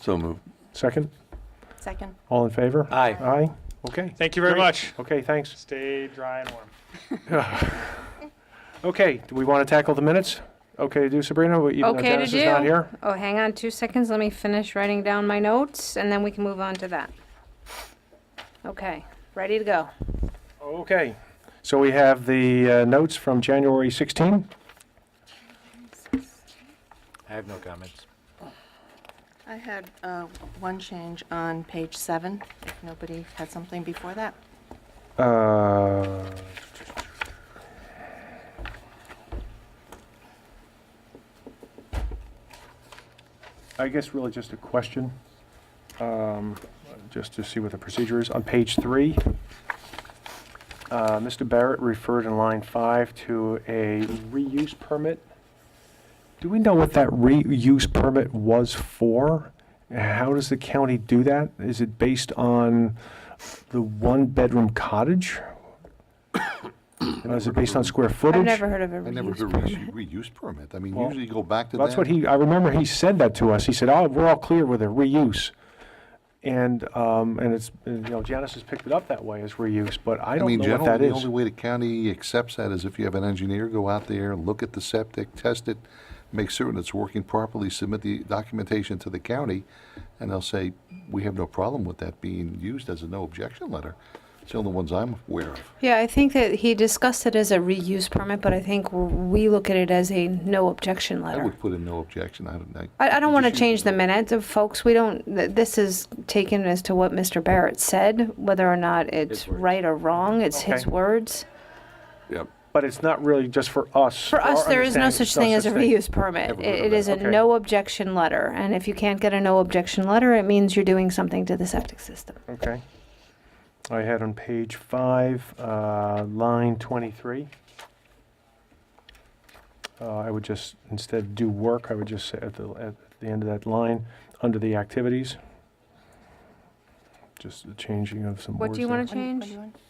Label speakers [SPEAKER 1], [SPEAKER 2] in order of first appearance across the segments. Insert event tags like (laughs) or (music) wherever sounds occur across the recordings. [SPEAKER 1] So moved.
[SPEAKER 2] Second?
[SPEAKER 3] Second.
[SPEAKER 2] All in favor?
[SPEAKER 4] Aye.
[SPEAKER 2] Aye? Okay.
[SPEAKER 4] Thank you very
[SPEAKER 2] Great.
[SPEAKER 4] much.
[SPEAKER 2] Okay, thanks.
[SPEAKER 4] Stay dry and warm.
[SPEAKER 2] (laughs) Okay, do we want to tackle the minutes? Okay to do, Sabrina, even though
[SPEAKER 3] Okay to
[SPEAKER 2] Dennis is not
[SPEAKER 3] do.
[SPEAKER 2] here?
[SPEAKER 3] Oh, hang on two seconds. Let me finish writing down my notes and then we can move on to that. Okay, ready to go.
[SPEAKER 2] Okay, so we have the uh, notes from January 16.
[SPEAKER 5] I have no comments.
[SPEAKER 6] I had uh, one change on page seven, if nobody had something before that.
[SPEAKER 2] Uh, I guess really just a question, um, just to see what the procedure is. On page three, uh, Mr. Barrett referred in line five to a reuse permit. Do we know what that reuse permit was for? How does the county do that? Is it based on the one-bedroom cottage? (coughs) Was it based on square footage?
[SPEAKER 3] I've never heard of a
[SPEAKER 1] I never
[SPEAKER 3] reuse.
[SPEAKER 1] heard of reuse reuse permit. I mean,
[SPEAKER 2] Well,
[SPEAKER 1] usually you go back to that.
[SPEAKER 2] That's what he, I remember he said that to us. He said, oh, we're all clear with a reuse. And, um, and it's, and, you know, Janice has picked it up that way as reuse, but I
[SPEAKER 1] I
[SPEAKER 2] don't
[SPEAKER 1] mean,
[SPEAKER 2] know what that
[SPEAKER 1] generally, the
[SPEAKER 2] is.
[SPEAKER 1] only way the county accepts that is if you have an engineer go out there, look at the septic, test it, make certain it's working properly, submit the documentation to the county, and they'll say, we have no problem with that being used as a no objection letter. It's the only ones I'm aware of.
[SPEAKER 3] Yeah, I think that he discussed it as a reuse permit, but I think w- we look at it as a no objection
[SPEAKER 1] I
[SPEAKER 3] letter.
[SPEAKER 1] would put in no objection. I don't, I.
[SPEAKER 3] I, I don't want to
[SPEAKER 1] just-
[SPEAKER 3] change the minutes of folks. We don't, th- this is taken as to what Mr. Barrett said, whether or not it's
[SPEAKER 5] His words.
[SPEAKER 3] right or wrong. It's his
[SPEAKER 2] Okay.
[SPEAKER 3] words.
[SPEAKER 2] But it's not really just for us.
[SPEAKER 3] For us,
[SPEAKER 2] our
[SPEAKER 3] there is no
[SPEAKER 2] understanding,
[SPEAKER 3] such thing as a reuse permit.
[SPEAKER 1] Never heard
[SPEAKER 3] It
[SPEAKER 1] of
[SPEAKER 3] it
[SPEAKER 1] that.
[SPEAKER 3] is a
[SPEAKER 2] Okay.
[SPEAKER 3] no objection letter, and if you can't get a no objection letter, it means you're doing something to the septic system.
[SPEAKER 2] Okay. I had on page five, uh, line twenty-three. Uh, I would just, instead of do work, I would just say at the, at the end of that line, under the activities. Just the changing of some words.
[SPEAKER 3] What do you want to
[SPEAKER 6] What do you- what do
[SPEAKER 3] change?
[SPEAKER 6] you want?
[SPEAKER 2] to?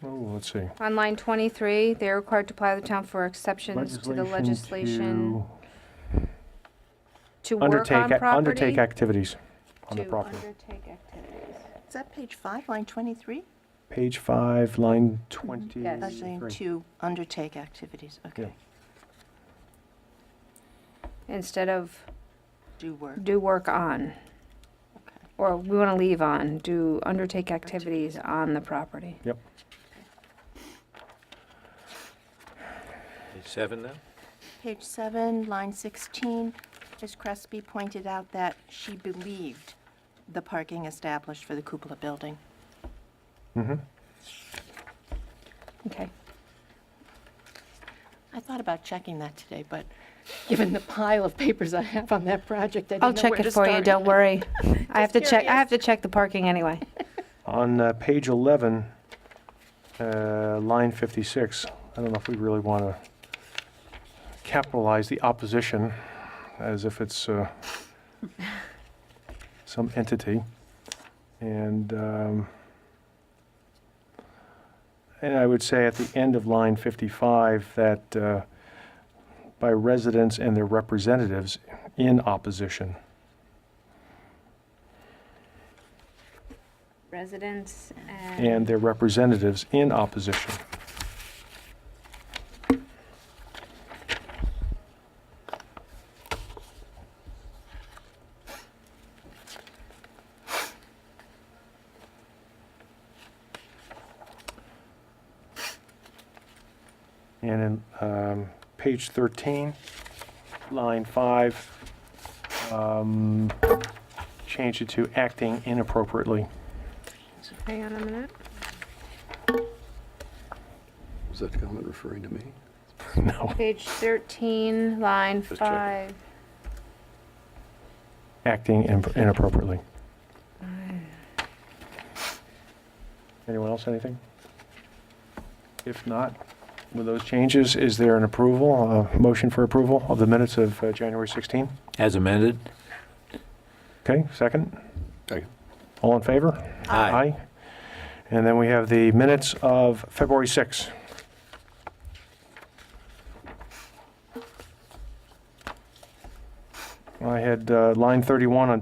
[SPEAKER 2] Oh, let's see.
[SPEAKER 3] On line 23, they are required to apply the town for exceptions to the legislation to
[SPEAKER 2] to
[SPEAKER 3] work on
[SPEAKER 2] Undertake,
[SPEAKER 3] property.
[SPEAKER 2] undertake activities on the
[SPEAKER 3] to
[SPEAKER 2] property.
[SPEAKER 3] undertake activities.
[SPEAKER 6] Is that page five, line 23?
[SPEAKER 2] Page five, line twenty.
[SPEAKER 3] Yes.
[SPEAKER 6] That's saying to undertake activities, okay.
[SPEAKER 3] Instead of
[SPEAKER 6] Do work,
[SPEAKER 3] do work on,
[SPEAKER 6] okay.
[SPEAKER 3] or we want to leave on, do undertake activities on the property.
[SPEAKER 5] Page seven now?
[SPEAKER 6] Page seven, line 16, Ms. Crespi pointed out that she believed the parking established for the cupola building.
[SPEAKER 3] Okay.
[SPEAKER 6] I thought about checking that today, but given the pile of papers I have on that project, I
[SPEAKER 3] I'll
[SPEAKER 6] didn't know
[SPEAKER 3] check
[SPEAKER 6] where to
[SPEAKER 3] it for you,
[SPEAKER 6] start.
[SPEAKER 3] don't (laughs) worry. I have to check, I
[SPEAKER 6] curious.
[SPEAKER 3] have to check the parking anyway.
[SPEAKER 2] On uh, page 11, uh, line 56, I don't know if we really want to capitalize the opposition as if it's uh, (laughs) some entity. And, um, and I would say at the end of line 55 that uh, by residents and their representatives in opposition.
[SPEAKER 3] Residents and.
[SPEAKER 2] and their representatives in opposition. And in um, page 13, line 5, um, change it to acting inappropriately. (laughs)
[SPEAKER 3] Hang on a minute.
[SPEAKER 7] Was that comment referring to me?
[SPEAKER 2] No.
[SPEAKER 3] Page 13, line
[SPEAKER 7] Just checking.
[SPEAKER 3] 5.
[SPEAKER 2] acting in- inappropriately. Anyone else, anything? If not, with those changes, is there an approval, a motion for approval of the minutes of uh, January 16?
[SPEAKER 5] As amended?
[SPEAKER 2] Okay, second?
[SPEAKER 7] Second.
[SPEAKER 2] All in favor? Aye. And then we have the minutes of February 6. I had uh, line 31 on